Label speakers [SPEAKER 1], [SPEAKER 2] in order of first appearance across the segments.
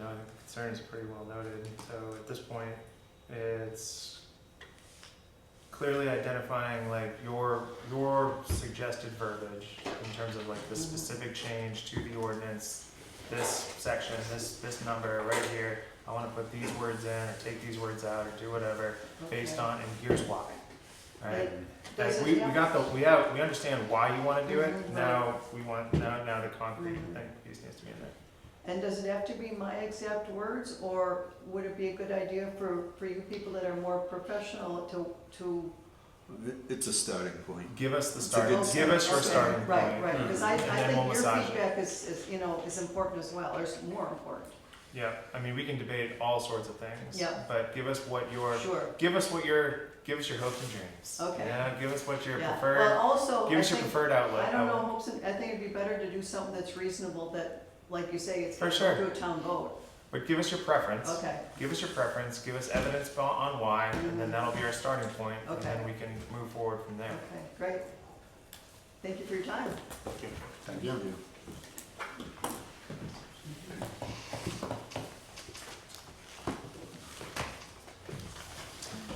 [SPEAKER 1] um, concern's pretty well noted. So at this point, it's clearly identifying like your, your suggested verbiage in terms of like the
[SPEAKER 2] Mhm.
[SPEAKER 1] specific change to the ordinance, this section, this, this number right here, I wanna put these words in, or take these words out, or do whatever, based
[SPEAKER 2] Okay.
[SPEAKER 1] on, and here's why, right?
[SPEAKER 2] Does
[SPEAKER 1] Like,
[SPEAKER 2] it
[SPEAKER 1] we, we
[SPEAKER 2] have-
[SPEAKER 1] got the, we have, we understand why you wanna do it,
[SPEAKER 2] Mhm, right.
[SPEAKER 1] now we want, now, now the concrete
[SPEAKER 2] Mhm.
[SPEAKER 1] thing piece needs to be in there.
[SPEAKER 2] And does it have to be my exact words, or would it be a good idea for, for you people that are more professional to, to?
[SPEAKER 3] It's a starting point.
[SPEAKER 1] Give us the
[SPEAKER 3] It's a
[SPEAKER 1] starting,
[SPEAKER 2] Okay,
[SPEAKER 1] give us your
[SPEAKER 2] okay,
[SPEAKER 1] starting point. Hmm.
[SPEAKER 2] Right, right,
[SPEAKER 3] Mhm.
[SPEAKER 2] because I, I
[SPEAKER 1] And then we'll
[SPEAKER 2] think your
[SPEAKER 1] massage it.
[SPEAKER 2] feedback is, is, you know, is important as well, or is more important,
[SPEAKER 1] Yeah, I mean, we can debate all sorts of things.
[SPEAKER 2] Yeah.
[SPEAKER 1] But give us what your,
[SPEAKER 2] sure,
[SPEAKER 1] give us what your, give us your hopes and dreams.
[SPEAKER 2] Okay.
[SPEAKER 1] Yeah, give us what your
[SPEAKER 2] yeah.
[SPEAKER 1] preferred,
[SPEAKER 2] Well, also,
[SPEAKER 1] give
[SPEAKER 2] I
[SPEAKER 1] us your
[SPEAKER 2] think,
[SPEAKER 1] preferred outlet.
[SPEAKER 2] I don't know,
[SPEAKER 1] would-
[SPEAKER 2] hopes and- I think it'd be better to do something that's reasonable, that, like you say, it's
[SPEAKER 1] For
[SPEAKER 2] gonna
[SPEAKER 1] sure.
[SPEAKER 2] go to a town vote,
[SPEAKER 1] But give us your preference.
[SPEAKER 2] okay,
[SPEAKER 1] Give us your preference, give us evidence bo- on why, and then
[SPEAKER 2] Mhm.
[SPEAKER 1] that'll be our starting point, and
[SPEAKER 2] Okay.
[SPEAKER 1] then we can move forward from there.
[SPEAKER 2] okay, great. Thank you for your time.
[SPEAKER 3] Thank you.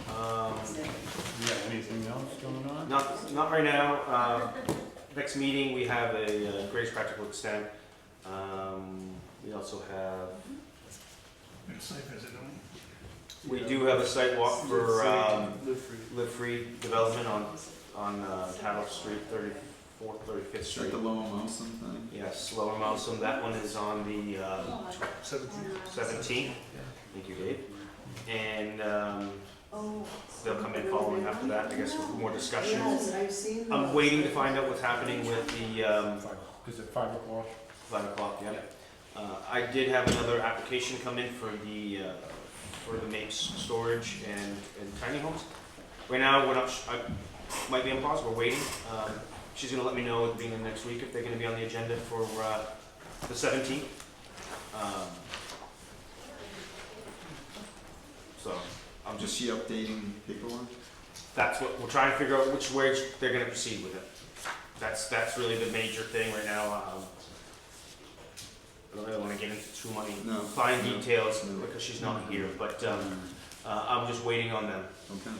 [SPEAKER 4] Um, yeah, anything else going on?
[SPEAKER 5] Not, not right now. Uh, Next meeting, we have a uh, greatest practical extent. Um, We also have, we do have a site walk for um, Live Free Development on, on uh, Tattle Street, 34th, 35th
[SPEAKER 3] Is that
[SPEAKER 5] Street.
[SPEAKER 3] the Lowell Molson thing?
[SPEAKER 5] Yes, Lower Mousom, that one is on the um, 17th. Thank you, Dave. And um, they'll come in following after that, I guess, with more discussion.
[SPEAKER 2] Yes, I've seen
[SPEAKER 5] I'm
[SPEAKER 2] those.
[SPEAKER 5] waiting to find out what's happening with the um,
[SPEAKER 4] Is it five o'clock?
[SPEAKER 5] Five o'clock, yeah. Uh, I did have another application come in for the, uh, for the MAPES storage and, and tiny homes. Right now, we're not, sh- I, might be on pause, we're waiting. Um, she's gonna let me know at the beginning of next week if they're gonna be on the agenda for, uh, the seventeenth. Um, So, I'm
[SPEAKER 3] Is
[SPEAKER 5] just,
[SPEAKER 3] she updating paperwork?
[SPEAKER 5] that's what, we're trying to figure out which way they're gonna proceed with it. That's, that's really the major thing right now, um. I don't really wanna get into too many
[SPEAKER 3] No.
[SPEAKER 5] fine
[SPEAKER 3] no.
[SPEAKER 5] details
[SPEAKER 3] No.
[SPEAKER 5] because she's not here, but um, uh, I'm just waiting on them.
[SPEAKER 3] Okay.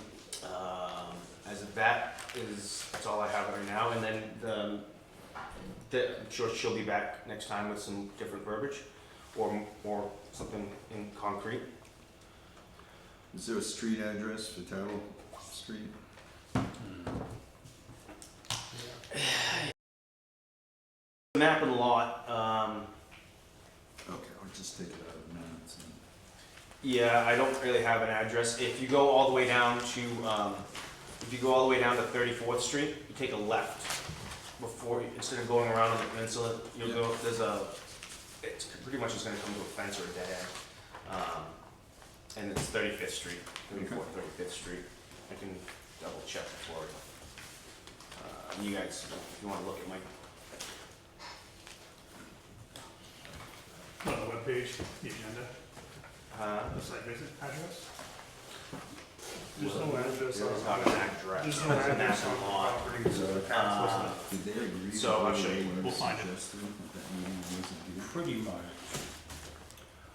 [SPEAKER 5] Um, as of that is that's all I have right now, and then the, the I'm sure she'll be back next time with some different verbiage, or or something in concrete.
[SPEAKER 3] Is there a street address for Tattle Street?
[SPEAKER 5] The map and lot. Um,
[SPEAKER 3] Okay, I'll just take it out of minutes. and-
[SPEAKER 5] yeah, I don't really have an address. If you go all the way down to um, if you go all the way down to 34th Street, you take a left before you- instead of going around on the peninsula, you'll go there's a it's pretty much just gonna come to a fence or a dead end. Um, and it's 35th Street, 34th, 35th Street. I can double check before. Uh, and you guys, if you wanna look at my
[SPEAKER 6] On the webpage, the agenda,
[SPEAKER 5] uh,
[SPEAKER 6] the site visit address? There's
[SPEAKER 5] well,
[SPEAKER 6] no address
[SPEAKER 5] there
[SPEAKER 6] on
[SPEAKER 5] is not an address.
[SPEAKER 6] There's no
[SPEAKER 5] It's
[SPEAKER 6] address
[SPEAKER 5] a
[SPEAKER 6] on
[SPEAKER 5] national
[SPEAKER 6] the
[SPEAKER 5] law.
[SPEAKER 6] property, it's just a tax list.
[SPEAKER 5] Uh,
[SPEAKER 3] Did they agree?
[SPEAKER 5] So,
[SPEAKER 3] with
[SPEAKER 5] I'll
[SPEAKER 3] what
[SPEAKER 5] show you.
[SPEAKER 3] they were
[SPEAKER 6] We'll find it.
[SPEAKER 3] suggesting at that meeting wasn't here?
[SPEAKER 4] Pretty much.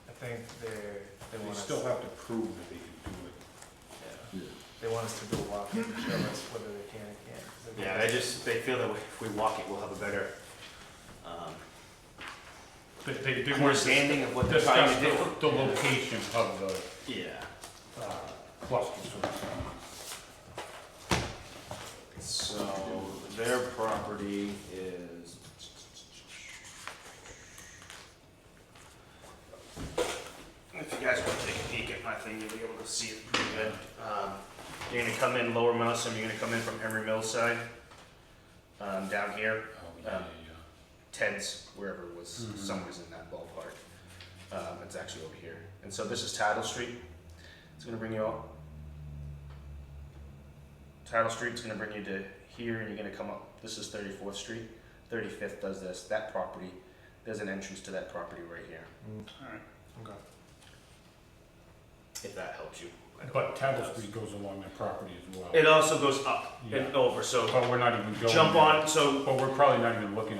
[SPEAKER 1] I think they're, they
[SPEAKER 4] They
[SPEAKER 1] want us,
[SPEAKER 4] still have to prove that they can do it.
[SPEAKER 3] Yeah.
[SPEAKER 5] yeah.
[SPEAKER 1] they want us to go walk and show us whether they can or can't. 'cause they-
[SPEAKER 5] Yeah, they just, they feel that if we walk it, we'll have a better, um,
[SPEAKER 6] They, they could do more
[SPEAKER 5] understanding of what they're trying
[SPEAKER 4] Discuss
[SPEAKER 5] to do.
[SPEAKER 4] the, the location of the
[SPEAKER 5] Yeah,
[SPEAKER 4] uh, clusters. of towns.
[SPEAKER 5] so their property is. If you guys wanna take a peek at my thing, you'll be able to see it pretty good. Um, You're gonna come in Lower Mousum, you're gonna come in from Emery Mills side, um, down here.
[SPEAKER 4] Oh, yeah, yeah, yeah.
[SPEAKER 5] Ted's, wherever it was,
[SPEAKER 4] Mhm.
[SPEAKER 5] somewhere's in that ballpark. Um, it's actually over here. And so this is Tattle Street. It's gonna bring you all. Tattle Street's gonna bring you to here, and you're gonna come up. This is 34th Street. 35th does this. That property, there's an entrance to that property right here.
[SPEAKER 1] Mm. Okay.
[SPEAKER 5] If that helps you. I don't-
[SPEAKER 4] But Tattle Street goes along their property as well.
[SPEAKER 5] It also goes up and over. So
[SPEAKER 4] But we're not even going.
[SPEAKER 5] jump
[SPEAKER 4] there.
[SPEAKER 5] on. So
[SPEAKER 4] But we're probably not even looking at